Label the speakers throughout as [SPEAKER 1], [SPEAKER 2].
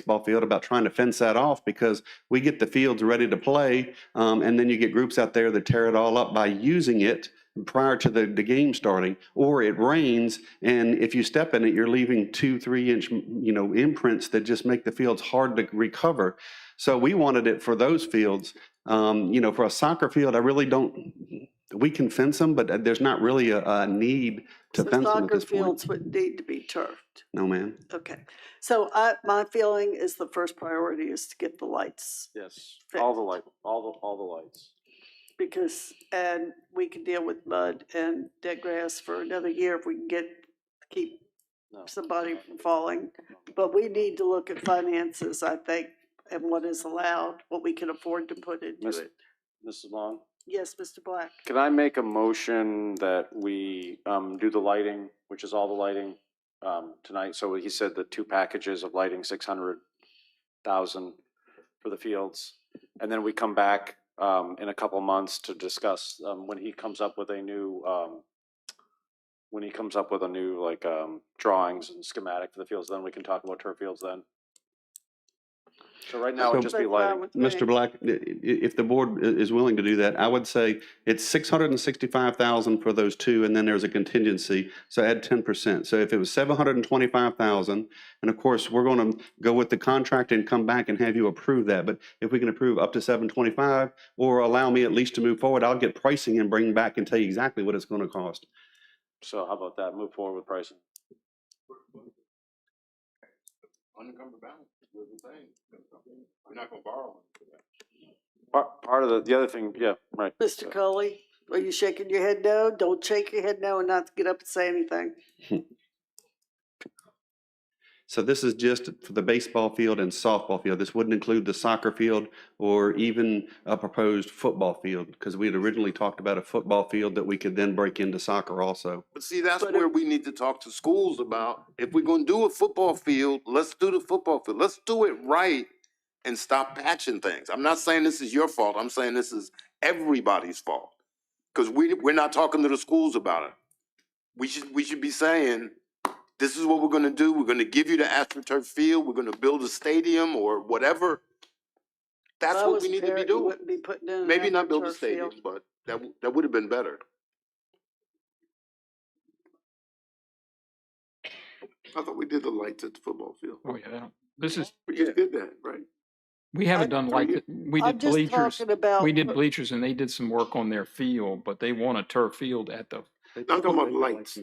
[SPEAKER 1] baseball field about trying to fence that off because we get the fields ready to play, um, and then you get groups out there that tear it all up by using it prior to the, the game starting, or it rains, and if you step in it, you're leaving two, three inch, you know, imprints that just make the fields hard to recover. So we wanted it for those fields. Um, you know, for a soccer field, I really don't, we can fence them, but uh, there's not really a, a need to
[SPEAKER 2] So
[SPEAKER 1] fence them at
[SPEAKER 2] soccer
[SPEAKER 1] this point.
[SPEAKER 2] fields would need to be turfed.
[SPEAKER 1] No, ma'am.
[SPEAKER 2] Okay. So I, my feeling is the first priority is to get the lights
[SPEAKER 3] Yes,
[SPEAKER 2] Fixed.
[SPEAKER 3] all the light, all the, all the lights.
[SPEAKER 2] because, and we can deal with mud and dead grass for another year if we can get, keep
[SPEAKER 3] No.
[SPEAKER 2] somebody from falling. But we need to look at finances, I think, and what is allowed, what we can afford to put into
[SPEAKER 3] Miss-
[SPEAKER 2] it.
[SPEAKER 3] Mrs. Long,
[SPEAKER 2] Yes, Mr. Black.
[SPEAKER 3] can I make a motion that we, um, do the lighting, which is all the lighting, um, tonight? So he said the two packages of lighting, six hundred thousand for the fields. And then we come back, um, in a couple months to discuss, um, when he comes up with a new, um, when he comes up with a new, like, um, drawings and schematic for the fields, then we can talk about turf fields then. So right now it'd
[SPEAKER 1] So-
[SPEAKER 3] just be
[SPEAKER 2] That's fine
[SPEAKER 3] lighting.
[SPEAKER 2] with me.
[SPEAKER 1] Mr. Black, i- i- if the board i- is willing to do that, I would say it's six hundred and sixty-five thousand for those two, and then there's a contingency, so add ten percent. So if it was seven hundred and twenty-five thousand, and of course, we're gonna go with the contract and come back and have you approve that, but if we can approve up to seven twenty-five, or allow me at least to move forward, I'll get pricing and bring back and tell you exactly what it's gonna cost.
[SPEAKER 3] So how about that? Move forward with pricing.
[SPEAKER 4] unencumbered balance was the thing. We're not gonna borrow it for that.
[SPEAKER 3] Part, part of the, the other thing, yeah, right.
[SPEAKER 2] Mr. Cully, are you shaking your head no? Don't shake your head no and not get up and say anything.
[SPEAKER 1] So this is just for the baseball field and softball field. This wouldn't include the soccer field or even a proposed football field because we had originally talked about a football field that we could then break into soccer also.
[SPEAKER 4] But see, that's
[SPEAKER 2] But uh,
[SPEAKER 4] where
[SPEAKER 2] it-
[SPEAKER 4] we need to talk to schools about, if we're gonna do a football field, let's do the football field, let's do it right and stop patching things. I'm not saying this is your fault, I'm saying this is everybody's fault. Cause we, we're not talking to the schools about it. We should, we should be saying, this is what we're gonna do, we're gonna give you the AstroTurf field, we're gonna build a stadium or whatever. That's
[SPEAKER 2] If I
[SPEAKER 4] what
[SPEAKER 2] was
[SPEAKER 4] we
[SPEAKER 2] a
[SPEAKER 4] need to be
[SPEAKER 2] parent, you
[SPEAKER 4] doing.
[SPEAKER 2] wouldn't Be putting in. an
[SPEAKER 4] Maybe not build a
[SPEAKER 2] AstroTurf
[SPEAKER 4] stadium,
[SPEAKER 2] Mm, field.
[SPEAKER 4] but that, w- that would have been better. I thought we did the lights at the football field.
[SPEAKER 5] Oh, yeah, that- this is,
[SPEAKER 4] We just did that, right?
[SPEAKER 5] we
[SPEAKER 2] I-
[SPEAKER 5] haven't done like,
[SPEAKER 4] you-
[SPEAKER 5] we
[SPEAKER 2] I'm
[SPEAKER 5] did
[SPEAKER 2] just
[SPEAKER 5] bleachers.
[SPEAKER 2] talking about
[SPEAKER 5] We did
[SPEAKER 2] what-
[SPEAKER 5] bleachers and they did some work on their field, but they want a turf field at the,
[SPEAKER 1] I'm
[SPEAKER 4] talking about lights.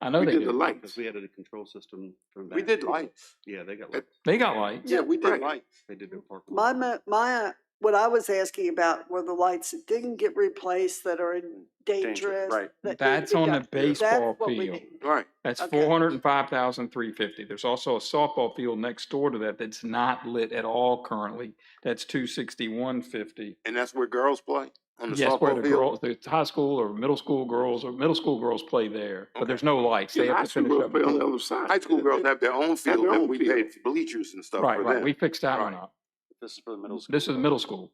[SPEAKER 5] I know
[SPEAKER 4] We
[SPEAKER 5] they
[SPEAKER 4] did the
[SPEAKER 5] do.
[SPEAKER 1] Because
[SPEAKER 4] lights.
[SPEAKER 1] we added a control system from that.
[SPEAKER 4] We did lights.
[SPEAKER 1] Yeah, they got
[SPEAKER 4] That-
[SPEAKER 1] lights.
[SPEAKER 5] They got lights.
[SPEAKER 4] Yeah, we did
[SPEAKER 2] Right.
[SPEAKER 4] lights.
[SPEAKER 1] They did their park.
[SPEAKER 2] My, mo- my, uh, what I was asking about were the lights that didn't get replaced that are in dangerous.
[SPEAKER 3] right.
[SPEAKER 2] that need to
[SPEAKER 5] That's
[SPEAKER 2] be
[SPEAKER 5] on the
[SPEAKER 2] done. That's
[SPEAKER 5] baseball
[SPEAKER 2] what we
[SPEAKER 5] field.
[SPEAKER 2] need.
[SPEAKER 4] Right.
[SPEAKER 5] That's
[SPEAKER 2] Okay.
[SPEAKER 5] four hundred and five thousand three fifty. There's also a softball field next door to that that's not lit at all currently. That's two sixty-one fifty.
[SPEAKER 4] And that's where girls play on the
[SPEAKER 5] Yes, where the
[SPEAKER 4] softball field.
[SPEAKER 5] girls, the high school or middle school girls, or middle school girls play there, but there's no lights. They have to finish up.
[SPEAKER 6] on the other side.
[SPEAKER 4] High school girls have their own field
[SPEAKER 6] their
[SPEAKER 4] and
[SPEAKER 6] own
[SPEAKER 4] we
[SPEAKER 6] field.
[SPEAKER 4] paid bleachers and stuff
[SPEAKER 5] Right,
[SPEAKER 4] for
[SPEAKER 5] right. We
[SPEAKER 4] them.
[SPEAKER 5] fixed that one
[SPEAKER 4] Right.
[SPEAKER 5] up.
[SPEAKER 3] This is for the middle school.
[SPEAKER 5] This is middle school.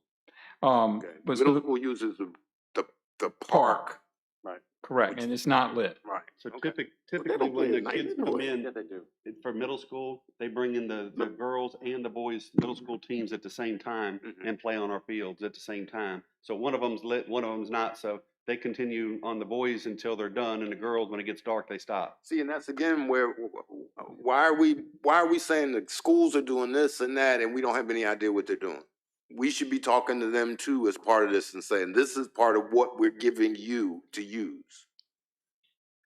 [SPEAKER 5] Um,
[SPEAKER 4] Okay.
[SPEAKER 5] but
[SPEAKER 4] Middle
[SPEAKER 5] so-
[SPEAKER 4] school uses the, the, the
[SPEAKER 5] park.
[SPEAKER 4] park.
[SPEAKER 5] correct, and it's not lit.
[SPEAKER 4] Right.
[SPEAKER 1] So
[SPEAKER 4] Okay.
[SPEAKER 1] typically,
[SPEAKER 4] But they don't
[SPEAKER 1] typically when
[SPEAKER 4] play
[SPEAKER 1] the
[SPEAKER 4] at night
[SPEAKER 1] kids
[SPEAKER 4] anyway.
[SPEAKER 1] come
[SPEAKER 3] Yeah,
[SPEAKER 1] in
[SPEAKER 3] they do.
[SPEAKER 1] for middle school, they bring in the, the girls and the boys' middle school teams at the same time
[SPEAKER 4] Mhm.
[SPEAKER 3] Mm-hmm.
[SPEAKER 1] and play on our fields at the same time. So one of them's lit, one of them's not, so they continue on the boys until they're done, and the girls, when it gets dark, they stop.
[SPEAKER 4] See, and that's again where, w- w- why are we, why are we saying the schools are doing this and that and we don't have any idea what they're doing? We should be talking to them too as part of this and saying, this is part of what we're giving you to use.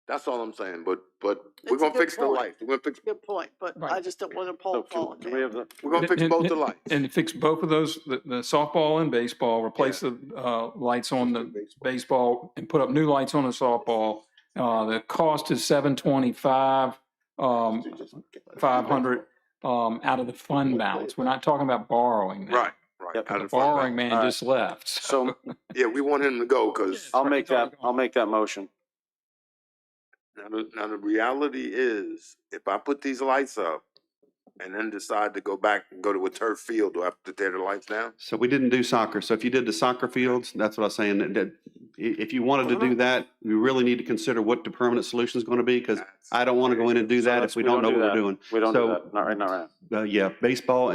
[SPEAKER 4] That's all I'm saying, but, but
[SPEAKER 2] It's a
[SPEAKER 4] we're gonna
[SPEAKER 2] good
[SPEAKER 4] fix the
[SPEAKER 2] point.
[SPEAKER 4] lights, we're gonna fix,
[SPEAKER 2] Good point, but I
[SPEAKER 5] Right.
[SPEAKER 2] just don't want to
[SPEAKER 3] So
[SPEAKER 2] pull fall.
[SPEAKER 3] can, can we have the,
[SPEAKER 4] we're gonna
[SPEAKER 5] And-
[SPEAKER 4] fix
[SPEAKER 5] and-
[SPEAKER 4] both the lights.
[SPEAKER 5] And fix both of those, the, the softball and baseball, replace the, uh, lights on the baseball and put up new lights on the softball. Uh, the cost is seven twenty-five, um, five hundred, um, out of the fund balance. We're not talking about borrowing. now.
[SPEAKER 4] Right, right.
[SPEAKER 3] Yep.
[SPEAKER 4] out
[SPEAKER 5] The
[SPEAKER 4] of fund balance.
[SPEAKER 5] borrowing man
[SPEAKER 3] Alright.
[SPEAKER 5] just left.
[SPEAKER 3] so
[SPEAKER 4] Yeah, we want him to go, cause
[SPEAKER 3] I'll make that, I'll make that motion.
[SPEAKER 4] Now, the, now the reality is, if I put these lights up and then decide to go back and go to a turf field, do I have to tear the lights down?
[SPEAKER 1] So we didn't do soccer, so if you did the soccer fields, that's what I was saying, that, that, i- if you wanted to
[SPEAKER 3] Uh-huh.
[SPEAKER 1] do that, you really need to consider what the permanent solution is gonna be, because I don't wanna go in and do
[SPEAKER 3] Uh, So
[SPEAKER 1] that
[SPEAKER 3] that's-
[SPEAKER 1] if we don't know what
[SPEAKER 3] do
[SPEAKER 1] we're
[SPEAKER 3] that.
[SPEAKER 1] doing.
[SPEAKER 3] We don't do
[SPEAKER 1] So-
[SPEAKER 3] that. Not right, not right.
[SPEAKER 1] uh, yeah, baseball